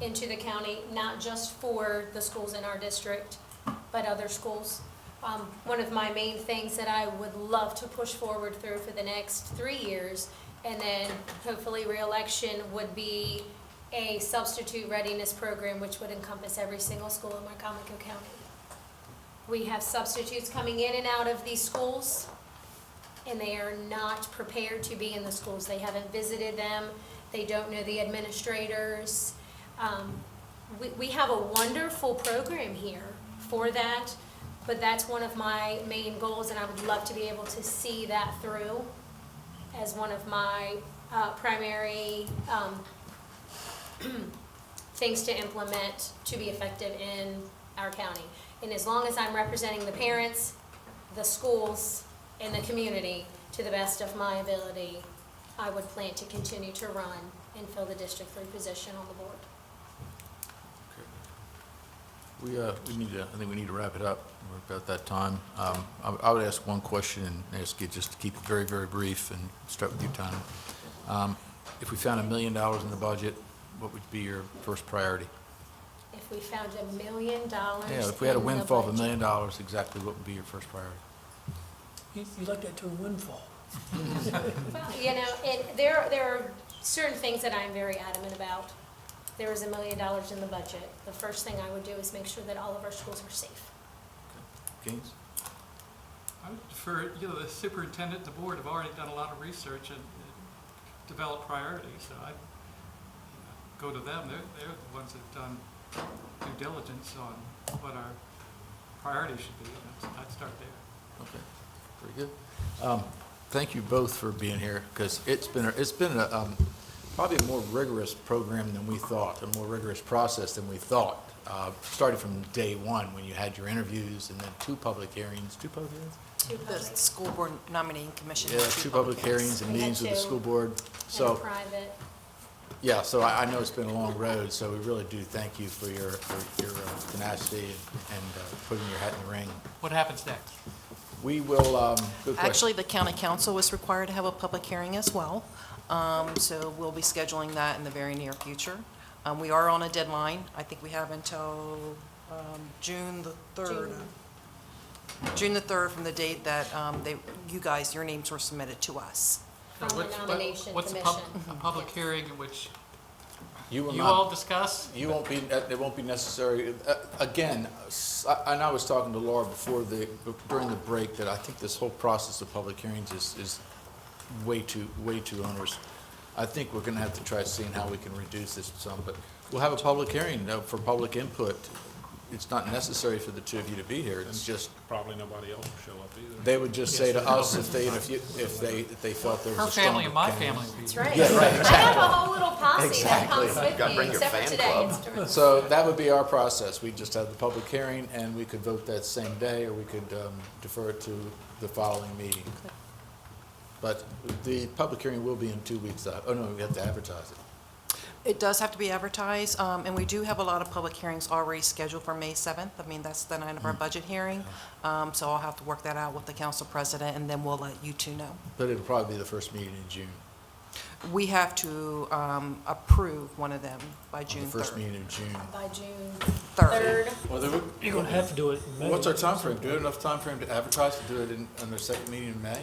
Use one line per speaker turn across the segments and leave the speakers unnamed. into the county, not just for the schools in our district, but other schools. Um, One of my main things that I would love to push forward through for the next three years, and then hopefully reelection, would be a substitute readiness program, which would encompass every single school in Wycomico County. We have substitutes coming in and out of these schools, and they are not prepared to be in the schools. They haven't visited them, they don't know the administrators. Um, We, we have a wonderful program here for that, but that's one of my main goals, and I would love to be able to see that through as one of my uh, primary um, things to implement to be effective in our county. And as long as I'm representing the parents, the schools, and the community to the best of my ability, I would plan to continue to run and fill the District Three position on the board.
We, uh, we need to, I think we need to wrap it up. We're about that time. Um, I, would- I would ask one question and ask you just to keep it very, very brief and start with you, Tony. Um, if we found a million dollars in the budget, what would be your first priority?
If we found a million dollars.
Yeah, if we had a
in the
windfall of a
budget-
million dollars, exactly what would be your first priority?
You, you like that term windfall.
Well, You know, it, there, there are certain things that I'm very adamant about. There is a million dollars in the budget. The first thing I would do is make sure that all of our schools are safe.
Gaines?
I would defer, you know, the superintendent, and the board have already done a lot of research and and developed priorities, so I, you know, go to them, they're, they're the ones that have done due diligence on what our priorities should be, and I'd I'd start there.
Okay, very good. Um, Thank you both for being here, because it's been, a- it's been a, um, probably a more rigorous program than we thought, a more rigorous process than we thought. Uh, Started from day one, when you had your interviews, and then two public hearings, two public hearings?
Two
The
public
school board nominating commission.
Yeah, two public hearings and
We had
meetings with the
two.
school board.
and
So,
private.
yeah, so I, I know it's been a long road, so we really do thank you for your, for your uh, tenacity and and, uh, putting your hat in the ring.
What happens next?
We will, um, good question.
Actually, the county council was required to have a public hearing as well, Um, so we'll be scheduling that in the very near future. Um, We are on a deadline. I think we have until um, June the 3rd. June the 3rd from the date that um, they, you guys, your names were submitted to us.
From the
What's- what-
nomination
What's a pub-
commission.
a public
Yes.
hearing in which
will
you
not-
all discuss?
You won't be, uh, it won't be necessary. Uh, Again, s- I- and I was talking to Laura before the, during the break, that I think this whole process of public hearings is, is way too, way too onerous. I think we're gonna have to try seeing how we can reduce this some, but we'll have a public hearing uh, for public input. It's not necessary for the two of you to be here, it's just,
Probably nobody else will show up either.
they would just say to us if they, if you, if they, if they felt there
Her
was a stronger
family and my
candidate.
family would be
That's
here.
right.
Yeah, right,
I have a whole little posse that comes with
Gotta
me,
bring your
except for
fan
today.
club.
It's terrific.
So that would be our process. We'd just have the public hearing, and we could vote that same day, or we could um, defer it to the following meeting. But the public hearing will be in two weeks, uh, oh no, we have to advertise it.
It does have to be advertised, um, and we do have a lot of public hearings already scheduled for May 7th. I mean, that's the night of our
Mm.
budget hearing, um, so I'll have to work that out with the council president, and then we'll let you two know.
But it'll probably be the first meeting in June,
We have to um, approve one of them by
on
June
the first
3rd.
meeting in June.
By June
Third.
third,
You're gonna have to do it in May.
What's our time frame? Do we have enough time frame to advertise to do it in, on the second meeting in May?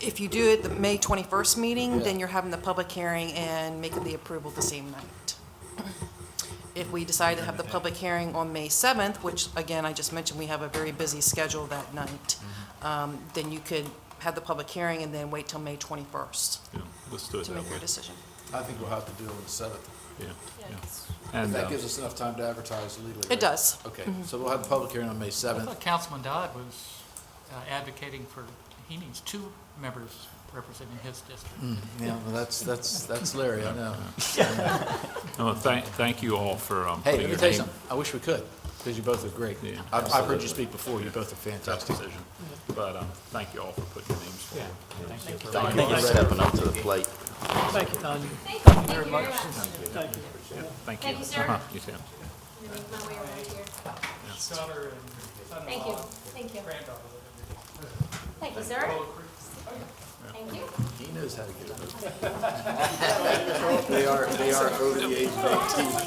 If you do it the May 21st meeting,
Yeah.
then you're having the public hearing and making the approval the same night. If we decide to have the public hearing on May 7th, which, again, I just mentioned, we have a very busy schedule that night,
Mm-hmm.
um, then you could have the public hearing and then wait till May 21st
Yeah, let's do it
to
that
make
way.
your decision.
I think we'll have to do it on the seventh.
Yeah, yeah.
yes.
And
That
uh,
gives us enough time to advertise legally,
It
right?
does. Mm-hmm.
Okay, so we'll have the public hearing on May
I
seventh.
thought Councilman Dodd was uh, advocating for, he needs two members representing his district.
Yeah, well, that's, that's, that's Larry, I know.
no, uh, thank, thank you all for um,
Hey,
putting
let me
your
tell you
name.
something. I wish we could, because you both are great.
Yeah,
I've, I've heard
absolutely.
you speak before. You both are
Tough
fantastic.
decision. But um, thank you all for putting your names forward.
Thank you for stepping up to the plate.
Thank you, Tanya.
Thank you, thank you very much.
Thank you.
Thank you.
Thank you, sir.
Uh-huh, You too.
Let me make my way around here.
Daughter and
Thank you, thank you. Thank you, sir. Thank you.
He knows how to get it. They are, they are over the age of eighteen.